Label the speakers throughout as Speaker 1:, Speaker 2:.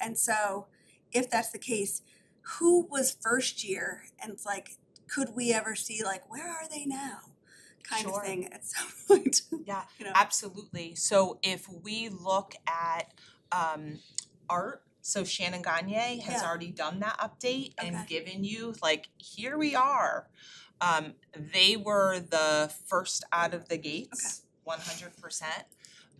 Speaker 1: And so if that's the case, who was first year and it's like, could we ever see like, where are they now? Kind of
Speaker 2: Sure.
Speaker 1: thing at some point,
Speaker 2: Yeah,
Speaker 1: you know?
Speaker 2: absolutely. So if we look at um art, so Shannon Gagne has
Speaker 1: Yeah.
Speaker 2: already done that update and
Speaker 1: Okay.
Speaker 2: given you like, here we are. Um they were the first out of the gates, one hundred percent.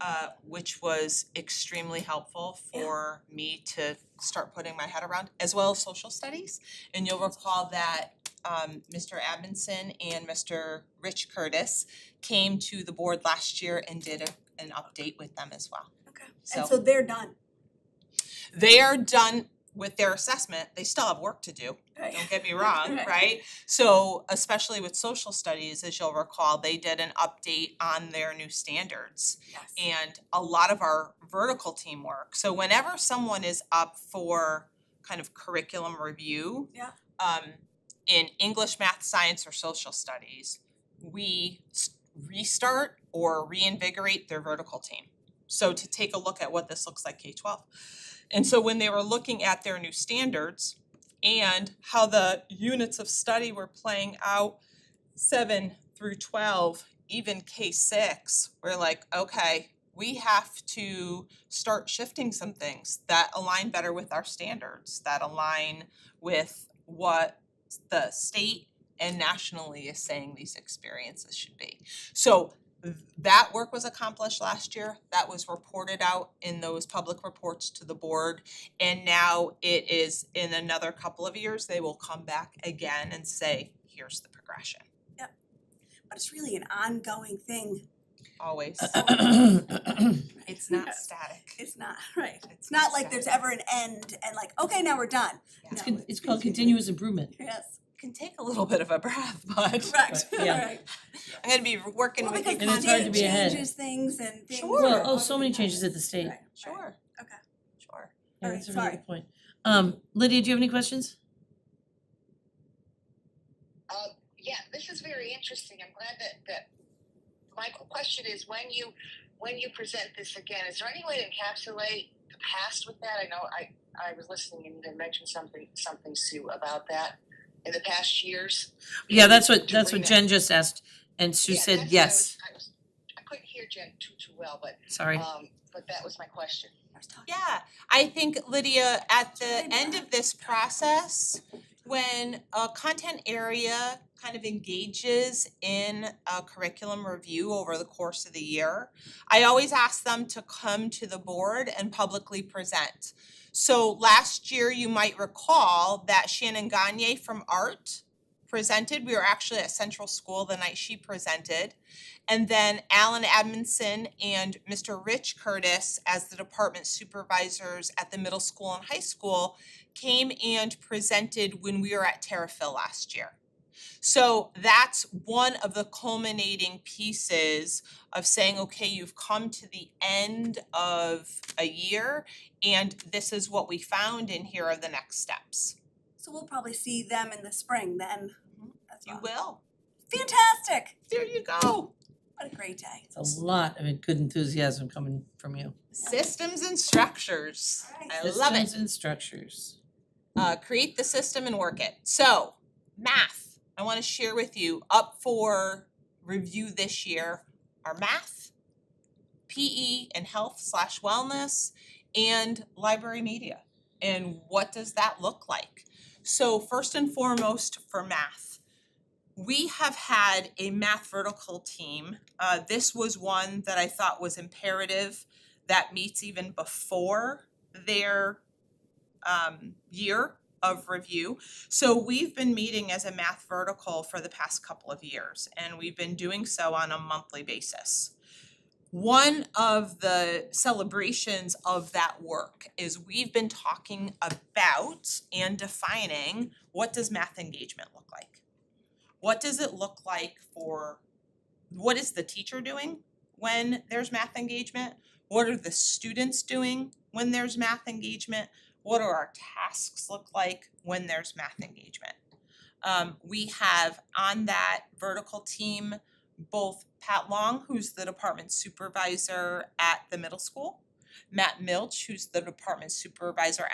Speaker 2: Uh which was extremely helpful
Speaker 1: Yeah.
Speaker 2: for me to start putting my head around, as well as social studies. And you'll recall that um Mr. Abinson and Mr. Rich Curtis came to the board last year and did a- an update with them as well.
Speaker 1: Okay.
Speaker 2: So-
Speaker 1: And so they're done,
Speaker 2: They are done with their assessment, they still have work to do,
Speaker 1: right?
Speaker 2: don't get me wrong,
Speaker 1: Right.
Speaker 2: right? So especially with social studies, as you'll recall, they did an update on their new standards
Speaker 1: Yes.
Speaker 2: and a lot of our vertical teamwork. So whenever someone is up for kind of curriculum review.
Speaker 1: Yeah.
Speaker 2: Um, in English, math, science, or social studies, we s- restart or reinvigorate their vertical team. So to take a look at what this looks like K twelve. And so when they were looking at their new standards and how the units of study were playing out seven through twelve, even K six, we're like, okay, we have to start shifting some things that align better with our standards, that align with what the state and nationally is saying these experiences should be. So th- that work was accomplished last year, that was reported out in those public reports to the board. And now it is in another couple of years, they will come back again and say, here's the progression,
Speaker 1: But it's really an ongoing thing.
Speaker 2: always.
Speaker 1: right?
Speaker 2: It's not static.
Speaker 1: It's not, right. It's not like there's
Speaker 2: static.
Speaker 1: ever an end and like, okay, now we're done.
Speaker 2: It's
Speaker 1: No,
Speaker 3: Con- It's called continuous improvement.
Speaker 1: Yes,
Speaker 2: Can take a little bit of a breath, but
Speaker 1: correct,
Speaker 3: Right, yeah.
Speaker 1: right.
Speaker 2: I'm gonna be working
Speaker 1: Well,
Speaker 2: with you.
Speaker 1: because
Speaker 3: And it's hard to
Speaker 1: the
Speaker 3: be
Speaker 1: state
Speaker 3: ahead.
Speaker 1: changes things and things.
Speaker 2: Sure.
Speaker 3: Well,
Speaker 1: are
Speaker 3: oh, so many
Speaker 1: always
Speaker 3: changes at the
Speaker 1: happening.
Speaker 3: state.
Speaker 1: Right, right.
Speaker 2: Sure.
Speaker 1: Okay.
Speaker 2: Sure.
Speaker 3: Yeah,
Speaker 1: Alright,
Speaker 3: that's a really
Speaker 1: sorry.
Speaker 3: good point. Um, Lydia, do you have any questions?
Speaker 4: Um, yeah, this is very interesting. I'm glad that, that my qu- question is when you when you present this again, is there any way to encapsulate the past with that? I know I, I was listening and you had mentioned something something Sue about that in the past years.
Speaker 3: Yeah, that's what,
Speaker 4: To
Speaker 3: that's what
Speaker 4: bring that-
Speaker 3: Jen just asked, and Sue
Speaker 4: Yeah,
Speaker 3: said
Speaker 4: that's what I
Speaker 3: yes,
Speaker 4: was- I, was, I couldn't hear Jen too too well, but
Speaker 3: sorry.
Speaker 4: um, but that was my question.
Speaker 1: I was talking-
Speaker 2: Yeah, I think Lydia, at the
Speaker 1: Try
Speaker 2: end
Speaker 1: that.
Speaker 2: of this process, when a content area kind of engages in a curriculum review over the course of the year, I always ask them to come to the board and publicly present. So last year, you might recall that Shannon Gagne from Art presented. We were actually at Central School the night she presented. And then Alan Admonson and Mr. Rich Curtis, as the department supervisors at the middle school and high school, came and presented when we were at Terrafill last year. So that's one of the culminating pieces of saying, okay, you've come to the end of a year and this is what we found and here are the next steps.
Speaker 1: So we'll probably see them in the spring then as
Speaker 2: Mm-hmm. You
Speaker 1: well.
Speaker 2: will.
Speaker 1: Fantastic,
Speaker 2: There you go.
Speaker 1: what a great day.
Speaker 3: It's A lot of good enthusiasm coming from you.
Speaker 2: Systems and structures. I
Speaker 1: Alright.
Speaker 2: love it.
Speaker 3: Systems and structures.
Speaker 2: Uh, create the system and work it. So, math, I want to share with you up for review this year are math, PE and health slash wellness, and library media. And what does that look like? So, first and foremost, for math, we have had a math vertical team. Uh, this was one that I thought was imperative that meets even before their um year of review. So we've been meeting as a math vertical for the past couple of years and we've been doing so on a monthly basis. One of the celebrations of that work is we've been talking about and defining what does math engagement look like? What does it look like for what is the teacher doing when there's math engagement? What are the students doing when there's math engagement? what do our tasks look like when there's math engagement? Um, we have on that vertical team both Pat Long, who's the department supervisor at the middle school, Matt Milch, who's the department supervisor at